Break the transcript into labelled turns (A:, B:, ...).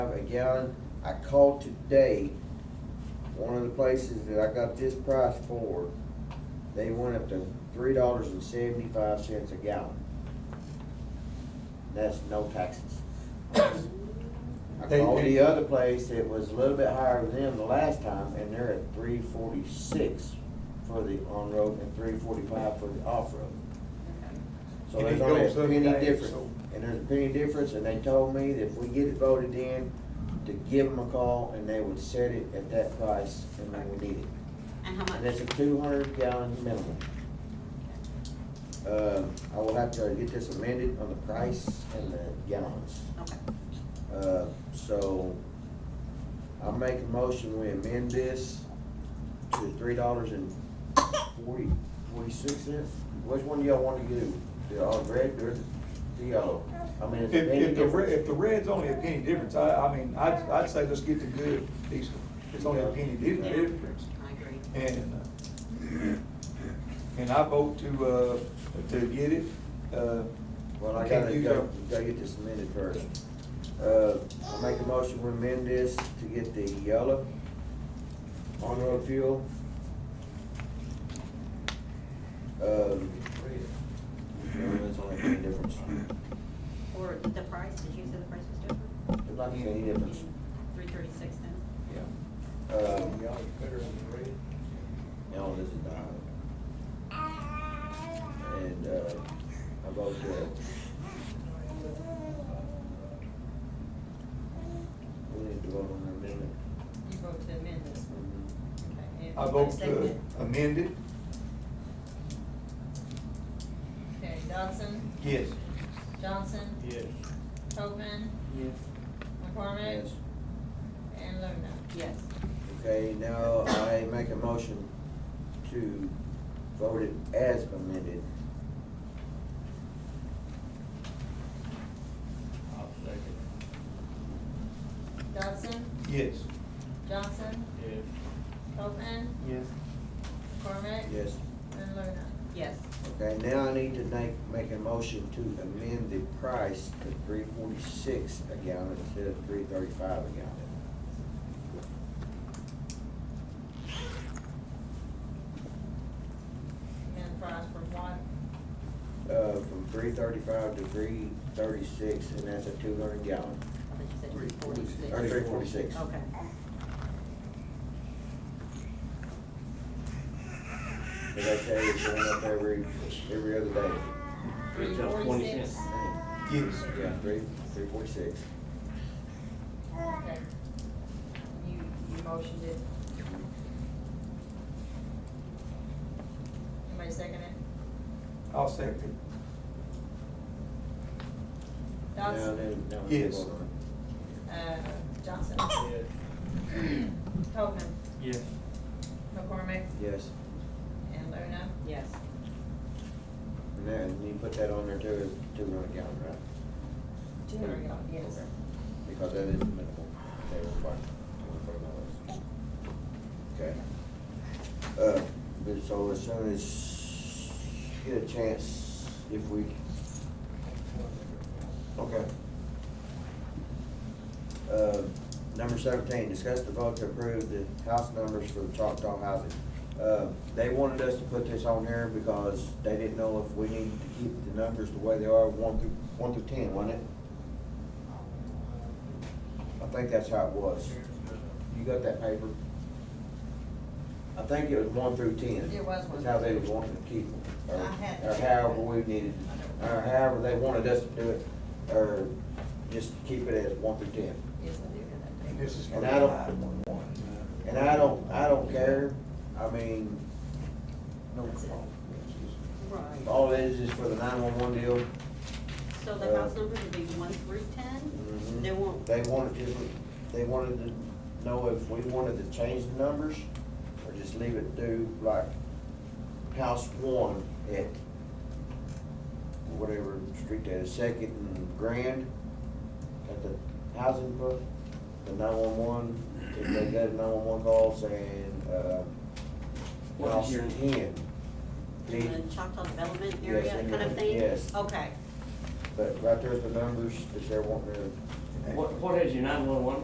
A: a gallon. I called today, one of the places that I got this price for, they went up to three dollars and seventy-five cents a gallon. That's no taxes. I
B: They-
A: called
B: they-
A: the other place, it was a little bit higher than them the last time, and they're at three forty-six for the on-road and three forty-five for the off-road. So
B: And
A: there's
B: it
A: only a
B: goes up
A: penny
B: days,
A: difference,
B: so-
A: and there's a penny difference, and they told me that if we get it voted in, to give them a call, and they would set it at that price, and then we need it.
C: And how
A: And that's
C: much?
A: a two hundred gallon minimum. Uh, I will have to get this amended on the price and the gallons.
C: Okay.
A: Uh, so, I make a motion, we amend this to three dollars and forty, forty-six cents? Which one do y'all wanna do? The all red or the yellow? I mean,
B: If,
A: it's a penny
B: if the, re- if
A: difference.
B: the red's only a penny difference, I, I mean, I'd, I'd say let's get the good diesel. It's only a penny di-
A: Yeah.
B: difference.
C: I agree.
B: And, uh, and I vote to, uh, to get it. Uh,
A: Well, I
B: can't
A: gotta,
B: use
A: gotta,
B: our-
A: gotta get this amended first. Uh, I make a motion, we amend this to get the yellow on-road fuel. Um, it's only a penny difference.
C: Or the price, did you say the price was different?
A: There's not gonna be any difference.
C: Three thirty-six then?
A: Um,
D: Y'all better on the red.
A: no, this is not. And, uh, I vote to. We need to vote on the amendment.
E: You vote to amend this one. Okay, and
B: I vote
E: second
B: to
E: it.
B: amend it.
E: Okay, Dodson,
B: Yes.
E: Johnson,
D: Yes.
E: Copman,
D: Yes.
E: McCormick,
A: Yes.
E: and Lerna.
C: Yes.
A: Okay, now I make a motion to vote it as amended.
D: I'll second.
E: Dodson,
B: Yes.
E: Johnson,
D: Yes.
E: Copman,
D: Yes.
E: McCormick,
A: Yes.
E: and Lerna.
C: Yes.
A: Okay, now I need to make, make a motion to amend the price to three forty-six a gallon instead of three thirty-five a gallon.
E: Amend price for what?
A: Uh, from three thirty-five to three thirty-six, and that's a two hundred gallon,
C: I thought you said
B: Three
C: three forty-six.
A: or three forty-six.
C: Okay.
A: As I tell you, it's going up every, every other day.
E: Three
D: Just twenty
E: forty-six.
D: cents.
B: Yes.
A: Yeah, three, three forty-six.
E: Okay. You, you motioned it. Anybody second it?
B: I'll second
A: Now,
E: Dodson,
A: then, now we can
B: Yes.
A: vote on it.
E: uh, Johnson,
D: Yes.
E: Copman,
D: Yes.
E: McCormick,
A: Yes,
E: and Lerna.
C: Yes.
A: and then you put that on there too, is two hundred gallon, right?
E: Two hundred gallon, yes.
A: Because that is minimal, they require twenty-four dollars. Okay. Uh, but so as soon as you get a chance, if we Okay. Uh, Number seventeen, discuss the vote to approve the house numbers for the Choctaw housing. Uh, They wanted us to put this on here because they didn't know if we needed to keep the numbers the way they are, one through, one through ten, wasn't it? I think that's how it was. You got that paper? I think it was one through ten.
E: It was one
A: Is how they
E: through
A: was wanting to keep them. or-
E: I had
A: Or
E: that.
A: however we needed, or however they wanted us to do it, or just keep it as one through ten.
E: Yes, I do
B: it. And
E: have that.
B: this is for
A: And
B: the
A: I don't- uh,
B: nine-one-one.
A: And I don't, I don't care, I mean,
B: No
E: That's it.
B: problem.
C: Right.
A: all it is is for the nine-one-one deal.
C: So the
A: Uh,
C: house number would be one through
A: Mm-hmm.
C: ten? They won't.
A: They wanted to, they wanted to know if we wanted to change the numbers, or just leave it do like house one at whatever street that is, Second and Grand, at the housing book, the nine-one-one, if they got a nine-one-one call saying, uh,
D: What
A: house
D: is your-
A: ten.
C: In
A: Need-
C: the Choctaw Development
A: Yes,
C: Area
A: in
C: kind of
A: the-
C: thing?
A: yes.
C: Okay.
A: But right there's the numbers that they're wanting to
D: What, what is your nine-one-one